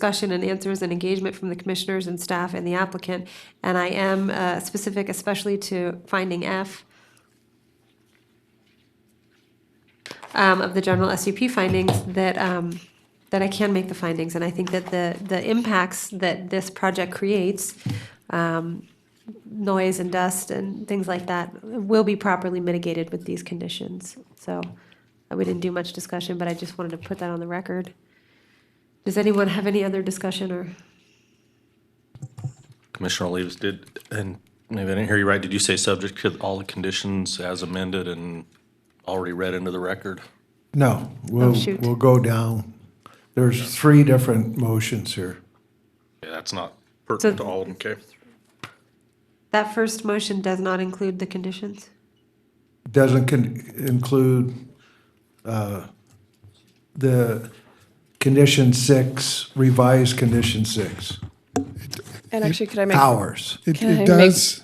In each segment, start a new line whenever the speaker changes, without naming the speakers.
discussion and answers and engagement from the commissioners and staff and the applicant. And I am uh, specific especially to finding F um, of the general SUP findings that, um, that I can make the findings. And I think that the, the impacts that this project creates, um, noise and dust and things like that, will be properly mitigated with these conditions. So uh, we didn't do much discussion, but I just wanted to put that on the record. Does anyone have any other discussion or?
Commissioner Olives did, and maybe I didn't hear you right, did you say subject to all the conditions as amended and already read into the record?
No, we'll,
Oh, shoot.
we'll go down. There's three different motions here.
Yeah, that's not pertinent to all, okay?
That first motion does not include the conditions?
Doesn't con- include, uh, the condition six, revised condition six,
And actually, could I make
hours.
It,
Can I
it
make-
does,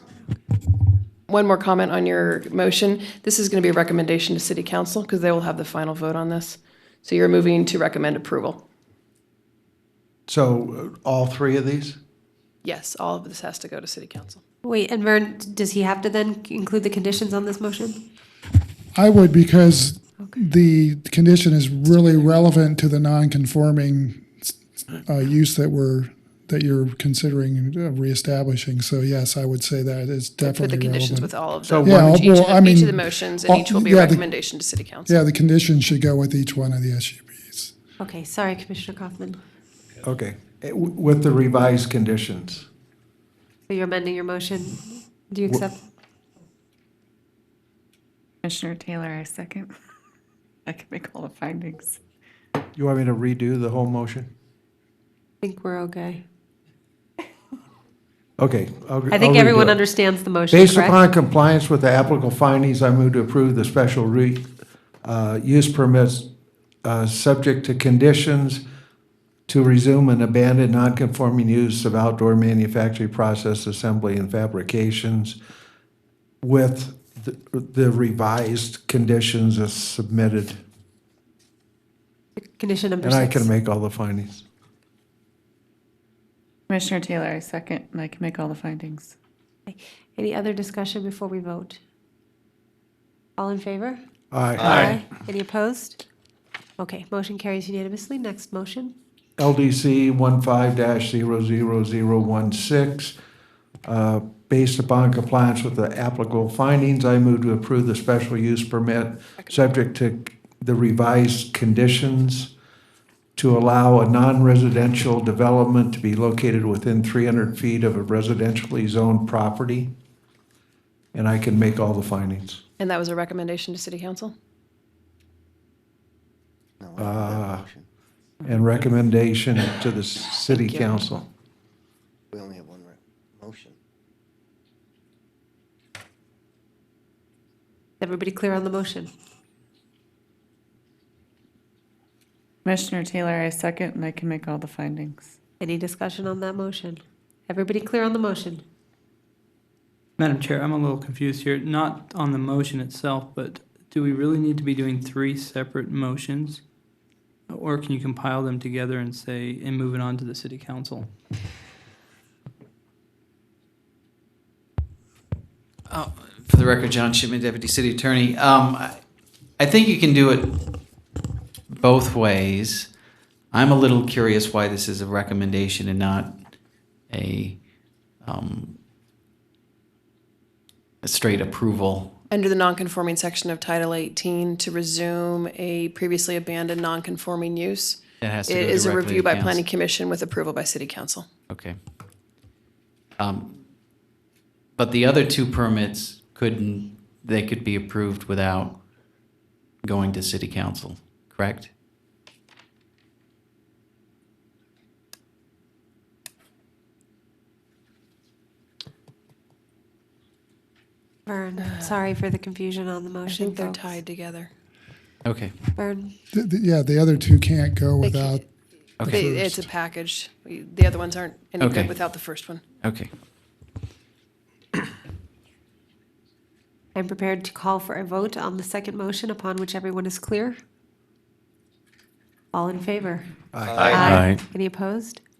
one more comment on your motion? This is going to be a recommendation to city council because they will have the final vote on this. So you're moving to recommend approval.
So uh, all three of these?
Yes, all of this has to go to city council.
Wait, and Vern, does he have to then include the conditions on this motion?
I would because the condition is really relevant to the non-conforming uh, use that we're, that you're considering uh, reestablishing. So yes, I would say that is
Put the
definitely
conditions with
relevant.
all of
So
them,
Yeah,
each
well, I
of the- each of the
mean,
motions, and
all-
each will be a
yeah, the-
recommendation to city council.
Yeah, the condition should go with each one of the SUPs.
Okay, sorry, Commissioner Kaufman.
Okay, eh, w- with the revised conditions.
So you're amending your motion. Do you accept?
Commissioner Taylor, I second. I can make all the findings.
You want me to redo the whole motion?
I think we're okay.
Okay. I'll-
I
I'll
think
redo
everyone
it.
understands the motion,
Based
correct?
upon compliance with the applicable findings, I move to approve the special re, uh, use permits, uh, subject to conditions to resume an abandoned non-conforming use of outdoor manufacturing process assembly and fabrications with the- the revised conditions as submitted.
Condition number
And I
six.
can make all the findings.
Commissioner Taylor, I second, and I can make all the findings.
Any other discussion before we vote? All in favor?
Aye.
Any opposed? Okay, motion carries unanimously. Next motion.
LDC 15-00016. uh, Based upon compliance with the applicable findings, I move to approve the special use permit, subject to the revised conditions to allow a non-residential development to be located within 300 feet of a residentially zoned property. And I can make all the findings.
And that was a recommendation to city council?
Uh, And recommendation to the city council.
We only have one re- motion.
Everybody clear on the motion?
Commissioner Taylor, I second, and I can make all the findings.
Any discussion on that motion? Everybody clear on the motion?
Madam Chair, I'm a little confused here, not on the motion itself, but do we really need to be doing three separate motions? Or can you compile them together and say, and move it on to the city council?
Uh, For the record, John Shipman, Deputy City Attorney. Um, I- I think you can do it both ways. I'm a little curious why this is a recommendation and not a, um, a straight approval.
Under the non-conforming section of Title 18, to resume a previously abandoned non-conforming use,
It has to go
it is a
directly to
review by
council.
planning commission with approval by city council.
Okay. Um, But the other two permits couldn't, they could be approved without going to city council, correct?
Vern, sorry for the confusion on the
Uh, I
motion.
think they're
folks.
tied together.
Okay.
Vern,
The- the- Yeah, the other two can't go
They
without
can't-
Okay.
They- It's a package. We- The other ones aren't any
Okay.
good without the first one.
Okay.
I'm prepared to call for a vote on the second motion upon which everyone is clear. All in favor? Aye. Any opposed?